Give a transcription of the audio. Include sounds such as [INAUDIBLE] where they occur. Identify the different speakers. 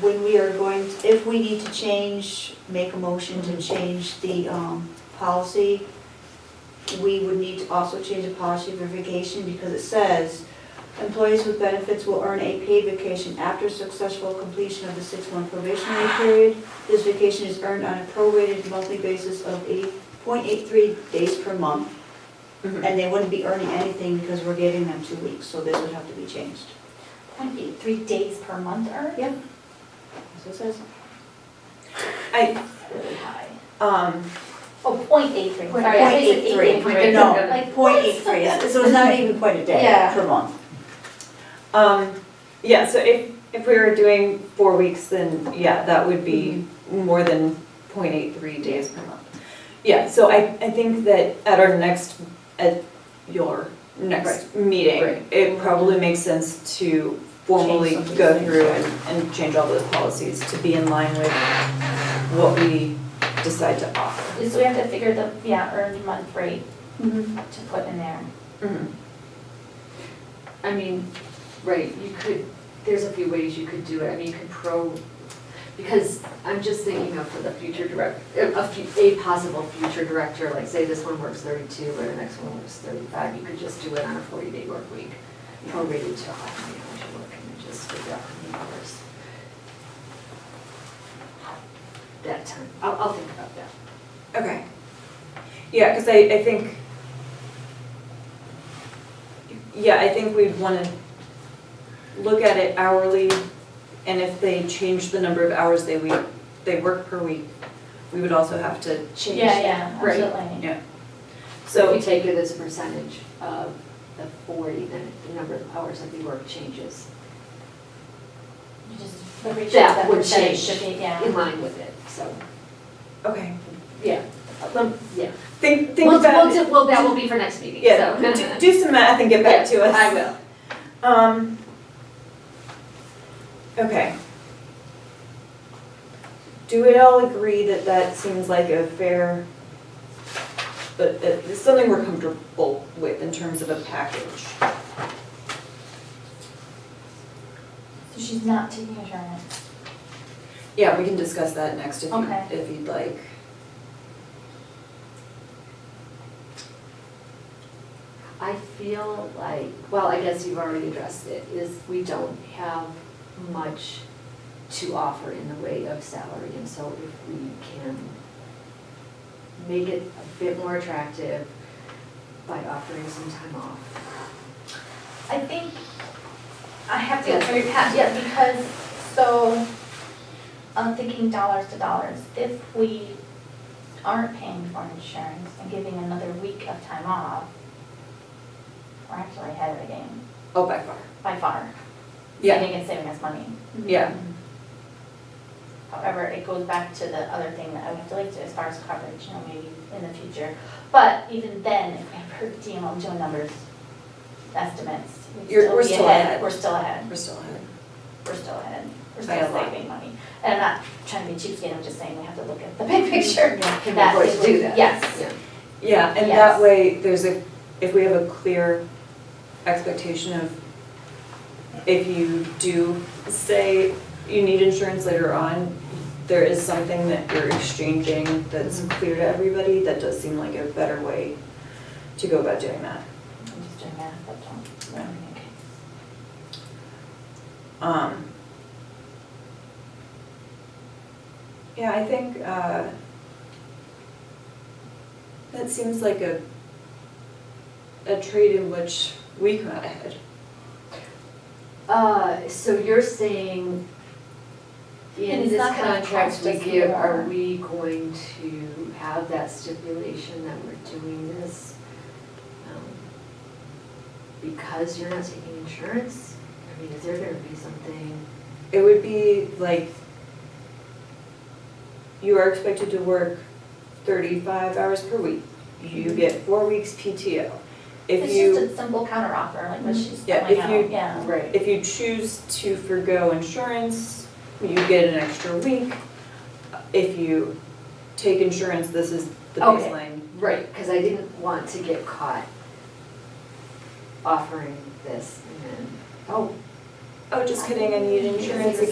Speaker 1: when we are going, to- if we need to change, make a motion to change the um, policy, we would need to also change the policy for vacation because it says, employees with benefits will earn a paid vacation after successful completion of the six-month probationary period. This vacation is earned on a prorated monthly basis of 8.83 days per month.
Speaker 2: Mhm.
Speaker 1: And they wouldn't be earning anything because we're giving them two weeks, so this would have to be changed.
Speaker 3: Point eight three days per month are
Speaker 1: Yeah. That's what it says.
Speaker 2: I,
Speaker 3: really high.
Speaker 2: um,
Speaker 3: Oh, point eight three,
Speaker 1: Point
Speaker 3: sorry, I think
Speaker 1: eight
Speaker 3: it's eight
Speaker 1: three,
Speaker 3: three.
Speaker 2: no.
Speaker 3: Like,
Speaker 1: Point eight three, so it's not even quite a day
Speaker 3: Yeah.
Speaker 1: per month.
Speaker 2: um, yeah, so if, if we were doing four weeks, then yeah, that would be
Speaker 4: Mm-hmm.
Speaker 2: more than 0.83 days per month. Yeah, so I, I think that at our next, at your next
Speaker 4: Right.
Speaker 2: meeting, it probably makes sense to formally
Speaker 1: some of these
Speaker 2: go
Speaker 1: things.
Speaker 2: through and, and change all those policies to be in line with what we decide to offer.
Speaker 3: So we have to figure the, yeah, earned month rate to put in there.
Speaker 4: I mean, right, you could, there's a few ways you could do it, I mean, you could pro, because I'm just thinking of for the future direct, a, fu- a possible future director, like say this one works thirty-two or the next one works thirty-five, you could just do it on a forty-day work week, prorated to how much you work, and then just figure out how many hours. That time, I'll, I'll think about that.
Speaker 2: Okay. Yeah, because I, I think, yeah, I think we'd want to look at it hourly, and if they change the number of hours they week, they work per week, we would also have to change.
Speaker 3: Yeah, yeah,
Speaker 2: Right.
Speaker 3: absolutely.
Speaker 2: Yeah.
Speaker 4: So if
Speaker 2: So,
Speaker 4: you take it as a percentage of the forty, then the number of hours that we work changes.
Speaker 3: You just, the ratio
Speaker 4: That
Speaker 3: of that
Speaker 4: would
Speaker 3: percentage
Speaker 4: change.
Speaker 3: should be, yeah.
Speaker 4: in line with it, so,
Speaker 2: okay,
Speaker 4: yeah, um, yeah.
Speaker 2: think, think
Speaker 4: We'll-
Speaker 2: about
Speaker 4: We'll,
Speaker 2: it.
Speaker 4: do- well, that will be for next meeting, so.
Speaker 2: Yeah, do-
Speaker 4: [LAUGHS]
Speaker 2: do some math and get back to us.
Speaker 4: I will.
Speaker 2: Um. Okay. Do we all agree that that seems like a fair, but uh, it's something we're comfortable with in terms of a package?
Speaker 3: So she's not taking insurance.
Speaker 2: Yeah, we can discuss that next if you,
Speaker 3: Okay.
Speaker 2: if you'd like.
Speaker 4: I feel like, well, I guess you've already addressed it, is we don't have much to offer in the way of salary, and so if we can make it a bit more attractive by offering some time off.
Speaker 3: I think I have to
Speaker 4: Yeah.
Speaker 3: answer your pass, yeah, because, so, I'm thinking dollars to dollars. If we aren't paying for insurance and giving another week of time off, we're actually ahead of the game
Speaker 2: Oh, by far.
Speaker 3: by far.
Speaker 2: Yeah,
Speaker 3: Saving and saving us money.
Speaker 2: yeah,
Speaker 3: However, it goes back to the other thing that I would like to, as far as coverage, you know, maybe in the future. But even then, if we have DML Joe numbers, estimates, we'd
Speaker 2: You're-
Speaker 3: still
Speaker 2: we're
Speaker 3: be
Speaker 2: still ahead.
Speaker 3: ahead, we're still ahead,
Speaker 2: we're still ahead.
Speaker 3: we're still ahead, we're
Speaker 2: By a
Speaker 3: still
Speaker 2: lot.
Speaker 3: saving money. And I'm not trying to be cheapskate, I'm just saying we have to look at the [LAUGHS] big picture.
Speaker 4: Can we
Speaker 3: That
Speaker 4: afford
Speaker 3: is
Speaker 4: to do
Speaker 3: what-
Speaker 4: that?
Speaker 3: yes.
Speaker 4: Yeah.
Speaker 2: Yeah, and that
Speaker 3: Yes.
Speaker 2: way, there's a, if we have a clear expectation of, if you do say you need insurance later on, there is something that you're exchanging that's clear to everybody, that does seem like a better way to go about doing that.
Speaker 3: I'm just doing math, but don't,
Speaker 2: Yeah.
Speaker 3: okay.
Speaker 2: Um. Yeah, I think, uh, that seems like a, a trade in which we come out ahead.
Speaker 4: Uh, so you're saying
Speaker 3: And
Speaker 4: in
Speaker 3: it's
Speaker 4: this
Speaker 3: not gonna
Speaker 4: contract
Speaker 3: cost
Speaker 4: we
Speaker 3: us
Speaker 4: give, are
Speaker 3: more.
Speaker 4: we going to have that stipulation that we're doing this? um, Because you're not taking insurance? I mean, is there gonna be something,
Speaker 2: It would be like you are expected to work thirty-five hours per week. You get four weeks PTO. If
Speaker 3: It's
Speaker 2: you,
Speaker 3: just a simple counter offer, like what she's
Speaker 2: Yeah,
Speaker 3: throwing
Speaker 2: if you-
Speaker 3: out, yeah.
Speaker 4: right?
Speaker 2: if you choose to forego insurance, you get an extra week. If you take insurance, this is the
Speaker 4: Okay.
Speaker 2: baseline.
Speaker 4: Right, cause I didn't want to get caught offering this and then, oh,
Speaker 2: Oh, just kidding, Oh, I need insurance again.